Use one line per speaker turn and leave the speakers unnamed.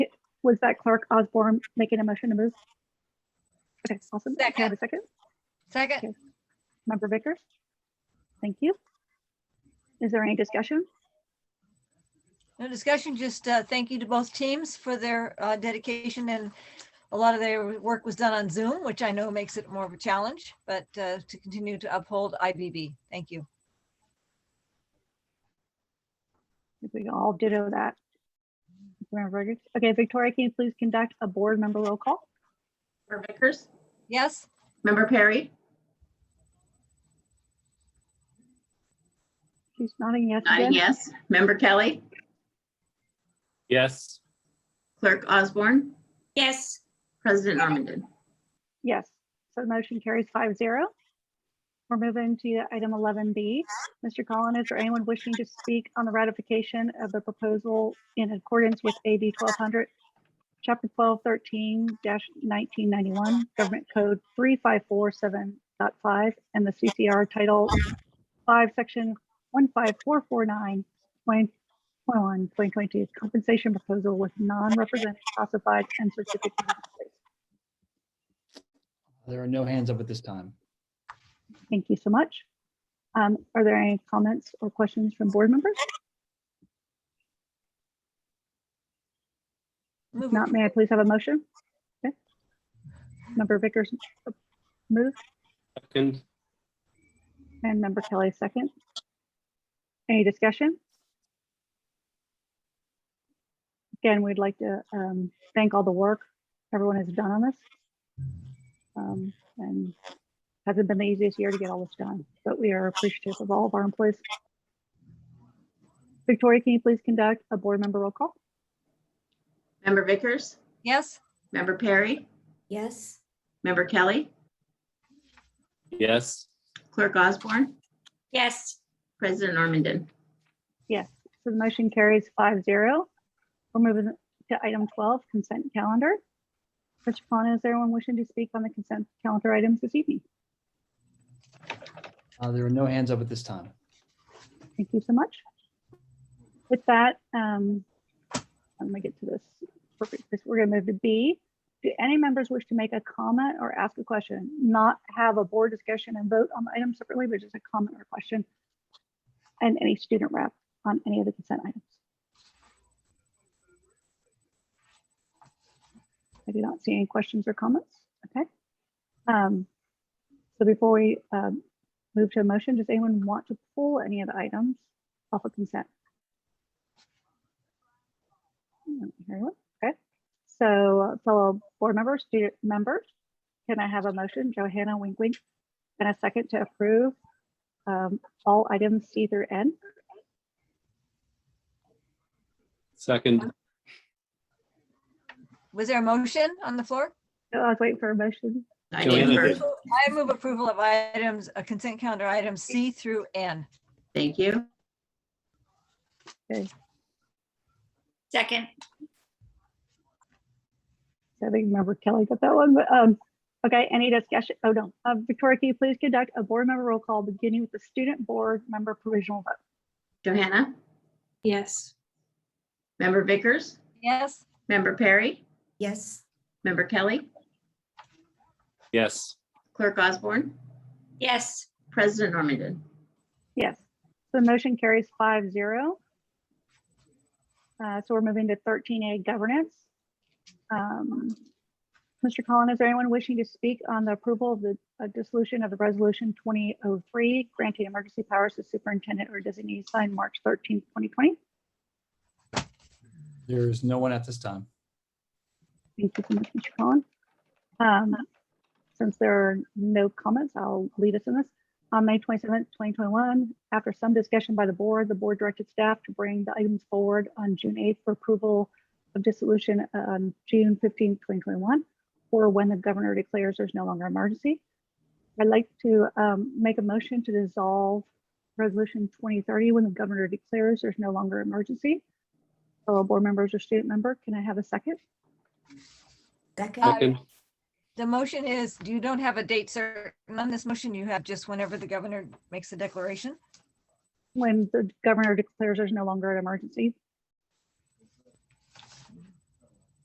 Was that Clark Osborne making a motion to move? Okay, awesome. Can I have
Second.
a second?
Second,
Member Vickers? Thank you. Is there any discussion?
no discussion, just uh, thank you to both teams for their uh, dedication and a lot of their work was done on Zoom, which I know makes it more of a challenge, but uh, to continue to uphold IBB. Thank you.
If we all ditto that. Member Vickers? Okay, Victoria, can you please conduct a board member roll call?
Member Vickers?
Yes,
Member Perry?
She's nodding yes
Nodding
again.
yes. Member Kelly?
Yes.
Clerk Osborne?
yes,
President Armendon?
Yes, so the motion carries five zero. We're moving to item eleven B. Mr. Collins, is there anyone wishing to speak on the ratification of the proposal in accordance with AB twelve hundred? Chapter twelve thirteen nineteen ninety-one, Government Code three five four seven and the CCR Title five, Section one five four four nine point one, point twenty-two, compensation proposal with non-represented classified and certificate. of place.
There are no hands up at this time.
Thank you so much. Um, Are there any comments or questions from board members? If
move,
Not, may I please have a motion? Okay. Member Vickers uh, move
Second.
and member Kelly second. Any discussion? Again, we'd like to um, thank all the work everyone has done on this. Um, And hasn't been the easiest year to get all this done, but we are appreciative of all of our employees. Victoria, can you please conduct a board member roll call?
Member Vickers?
yes,
Member Perry?
yes,
Member Kelly?
Yes.
Clerk Osborne?
yes,
President Armendon?
So the motion carries five zero. We're moving to item twelve, consent calendar. Mr. Khan, is there anyone wishing to speak on the consent calendar items this evening?
Uh, There are no hands up at this time.
Thank you so much. With that, um, let me get to this. Perfect. This- We're gonna move to B. Do any members wish to make a comment or ask a question? Not have a board discussion and vote on the item separately, but just a comment or question. And any student rep on any of the consent items. I do not see any questions or comments. Okay. Um, So before we um, Move to a motion. Does anyone want to pull any of the items off of consent? I don't hear anyone. Okay, so uh, fellow board members, student members, can I have a motion? Johanna wink wink. And a second to approve um, all items C through N.
Second.
was there a motion on the floor?
Oh, I was waiting for a motion.
I
Joanna
did
did.
first.
I move approval of items, uh, consent calendar items C through N.
Thank you.
second,
So I think member Kelly got that one, but um, okay, any discussion? Oh, no. Uh, Victoria, can you please conduct a board member roll call beginning with the student board member provisional vote?
Johanna?
yes,
Member Vickers?
Yes,
Member Perry?
yes,
Member Kelly?
Yes.
Clerk Osborne?
yes,
President Armendon?
Yes, the motion carries five zero. Uh, So we're moving to thirteen A governance. Um, Mr. Collin, is there anyone wishing to speak on the approval of the uh, dissolution of the resolution twenty oh three, granting emergency powers to superintendent or designee signed March thirteenth, twenty twenty?
There is no one at this time.
Thank you so much, Mr. Collin. Um, Since there are no comments, I'll lead us in this. On May 27th, 2021, after some discussion by the board, the board directed staff to bring the items forward on June 8th for approval of dissolution on June 15th, 2021, or when the governor declares there's no longer emergency. I'd like to um, make a motion to dissolve Resolution 2030 when the governor declares there's no longer emergency. Fellow board members or student member, can I have a second?
second,
Second.
the motion is, you don't have a date certain on this motion. You have just whenever the governor makes the declaration.
when the governor declares there's no longer an emergency,